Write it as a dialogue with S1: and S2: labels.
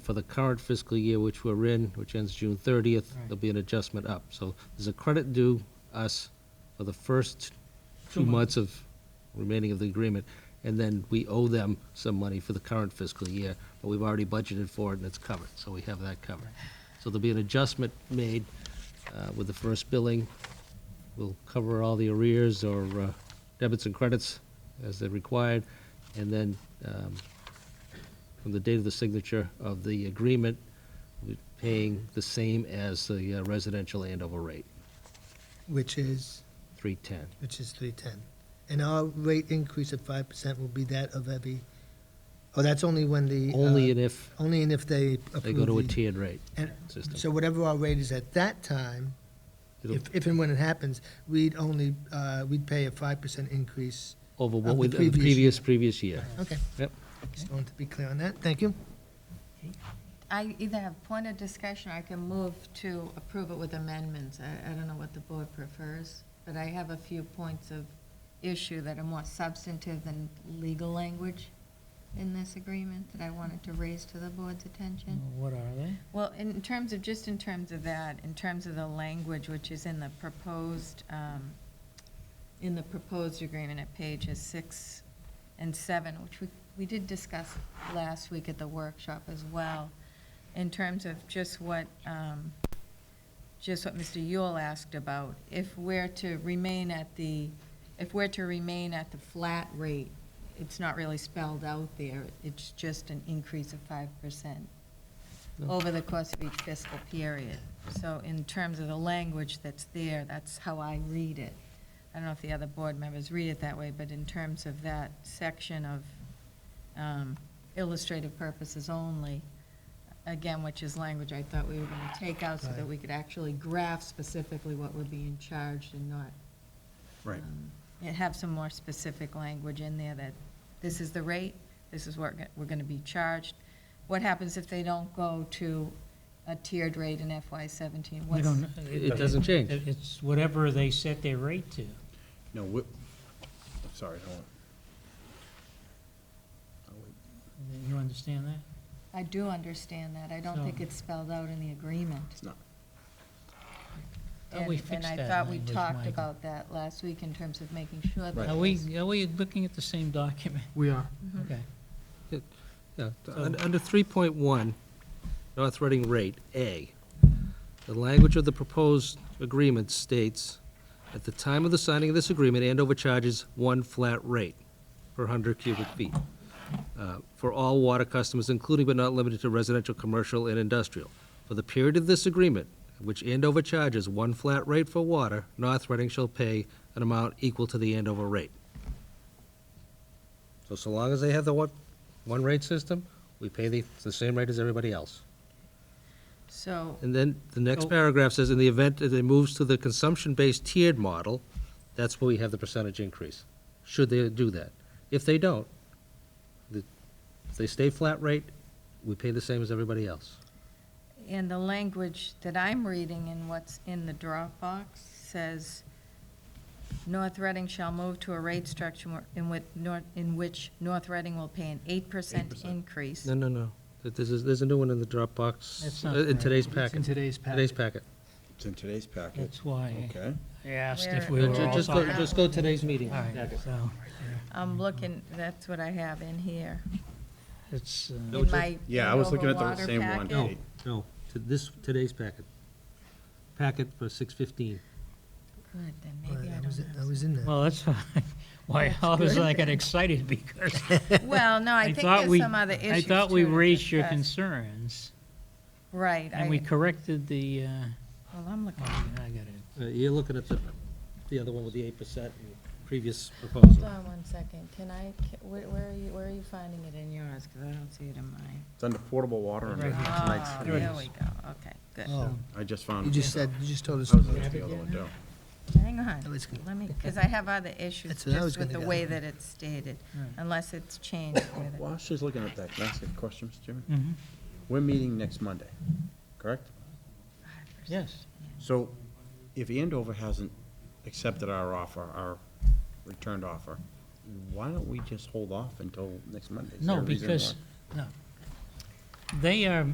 S1: for the current fiscal year which we're in, which ends June 30th,
S2: Right.
S1: there'll be an adjustment up. So there's a credit due us for the first two
S2: Two months.
S1: months of remaining of the agreement, and then we owe them some money for the current fiscal year, but we've already budgeted for it and it's covered, so we have that covered. So there'll be an adjustment made uh, with the first billing. We'll cover all the arrears or uh, debits and credits as they're required, and then um, from the date of the signature of the agreement, we're paying the same as the uh, residential Andover rate,
S2: Which is,
S1: 310.
S2: which is three ten. And our rate increase of five percent will be that of every, oh, that's only when the. uh,
S1: Only and if
S2: Only and if they approve.
S1: they go to a
S2: the-
S1: tiered rate
S2: and- So
S1: system.
S2: whatever our rate is at that time,
S1: It'll-
S2: if, if and when it happens, we'd only, uh, we'd pay a five percent increase.
S1: Over what
S2: of
S1: we,
S2: the
S1: the previous,
S2: previous
S1: previous year.
S2: Okay,
S1: Yep.
S2: just wanted to be clear on that. Thank you.
S3: I either have point of discussion, or I can move to approve it with amendments. I, I don't know what the board prefers, but I have a few points of issue that are more substantive than legal language in this agreement that I wanted to raise to the board's attention.
S4: What are they?
S3: Well, in terms of, just in terms of that, in terms of the language which is in the proposed, um, in the proposed agreement at pages six and seven, which we, we did discuss last week at the workshop as well, in terms of just what, um, just what Mr. Yule asked about, if we're to remain at the, if we're to remain at the flat rate, it's not really spelled out there, it's just an increase of five percent over the course of each fiscal period. So in terms of the language that's there, that's how I read it. I don't know if the other board members read it that way, but in terms of that section of um, illustrative purposes only, again, which is language I thought we were going to take out so that
S2: Right.
S3: we could actually graph specifically what we're being charged and not
S5: Right.
S3: um, and have some more specific language in there that this is the rate, this is what we're going to be charged. What happens if they don't go to a tiered rate in FY seventeen?
S4: We
S3: What's
S4: don't.
S1: It doesn't change.
S4: it- It's whatever they set their rate to.
S5: No, we, I'm sorry, I don't.
S4: You understand that?
S3: I do understand that. I don't
S4: So-
S3: think it's spelled out in the agreement.
S5: It's not.
S4: Thought we
S3: And-
S4: fixed that
S3: And I thought we
S4: language,
S3: talked
S4: Michael.
S3: about that last week in terms of making sure
S5: Right.
S3: that.
S4: Are we, are we looking at the same document?
S2: We are.
S4: Okay.
S1: Yeah, t-
S4: So-
S1: un- Under 3.1, North Reading rate, A, the language of the proposed agreement states, "At the time of the signing of this agreement, Andover charges one flat rate per 100 cubic feet uh, for all water customers, including but not limited to residential, commercial, and industrial. For the period of this agreement, which Andover charges one flat rate for water, North Reading shall pay an amount equal to the Andover rate." So so long as they have the one, one rate system, we pay the, it's the same rate as everybody else.
S3: So,
S1: And then the next
S4: Oh.
S1: paragraph says, in the event that it moves to the consumption-based tiered model, that's where we have the percentage increase, should they do that. If they don't, the- if they stay flat rate, we pay the same as everybody else.
S3: and the language that I'm reading in what's in the Dropbox says, North Reading shall move to a rate structure where- in which, Nor- in which North Reading will pay an eight percent
S5: 8%.
S3: increase.
S1: No, no, no, That this is, there's a new one in the Dropbox,
S4: That's
S1: uh,
S4: not
S1: in
S4: correct.
S1: today's
S4: It's
S1: packet,
S2: today's
S1: today's packet.
S5: It's in today's packet.
S4: That's why
S5: Okay.
S4: I asked if
S3: Where-
S4: we were
S1: Ju-
S4: all
S1: Just go,
S4: talking.
S3: talking-
S1: just go today's meeting.
S4: All right,
S1: packet.
S4: so
S3: I'm looking, that's what I have in here,
S4: it's, uh,
S1: No,
S3: in
S1: ju-
S3: my.
S5: Yeah, I was looking at the
S3: Andover
S5: same
S3: water
S5: one.
S3: packet.
S1: No, no, to this, today's packet. Packet for six fifteen.
S3: Oh, Good, then maybe I
S2: I was, I
S3: don't
S2: was in there.
S4: well, that's why- why I was like excited because
S3: have. Well, no, I
S4: I
S3: think
S4: thought
S3: there's
S4: we,
S3: some other issues.
S4: I thought we
S3: too to
S4: raised your
S3: discuss.
S4: concerns
S3: Right, I,
S4: and we
S3: well,
S4: corrected the, uh,
S3: I'm looking.
S4: oh, I got it.
S1: Uh, You're looking at the, the other one with the eight percent previous proposal.
S3: Hold on one second, can I, ca- where, where are you, where are you finding it in yours, because I don't see it in mine.
S5: It's under portable water and
S4: Right here.
S5: tonight's.
S3: Oh,
S4: There it
S3: there
S4: is.
S3: we go, okay, good.
S2: Oh,
S5: I just found.
S2: you just said, you just told us.
S5: I was looking at the other one, too.
S3: Hang
S2: Oh,
S3: on,
S2: it's good.
S3: let me, because I have other issues
S2: That's what I was
S3: just with the
S2: gonna
S3: way
S2: go.
S3: that it's stated,
S4: Right.
S3: unless it's changed with it.
S5: While she's looking at that, can I ask a question, Mr. Chairman?
S4: Mhm.
S5: We're meeting next Monday, correct?
S4: Yes,
S5: So if Andover hasn't accepted our offer, our returned offer, why don't we just hold off until next Monday? Is
S4: no,
S5: there a reason
S4: because,
S5: why?
S4: no. They are